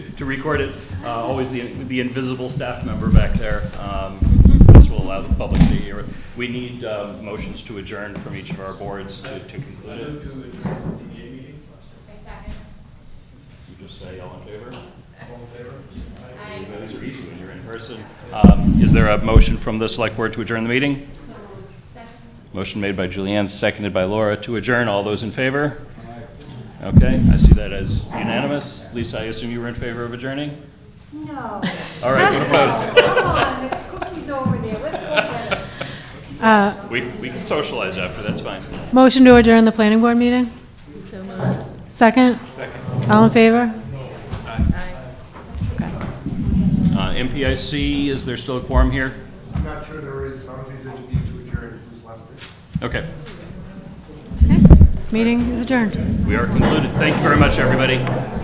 to record it. Uh, Always the, the invisible staff member back there. Um, This will allow the public to hear it. We need uh, motions to adjourn from each of our boards to to conclude I move it. to adjourn the ZBA meeting. You just say all in favor? All in favor? You guys are easy when you're in person. Um, Is there a motion from the select board to adjourn the meeting? Motion made by Julianne, seconded by Laura to adjourn. All those in favor? Okay, I see that as unanimous. Lisa, I assume you were in favor of adjourning? No. All right, what opposed? Come on, there's cookies over there, let's go get 'em. We, we can socialize after, that's fine. Motion to adjourn the planning board meeting? Second? Second. All in favor? Uh, MPIC, is there still a quorum here? I'm not sure there is, I don't think there's a need to adjourn, who's left it. Okay, Okay, this meeting is adjourned. we are concluded. Thank you very much, everybody.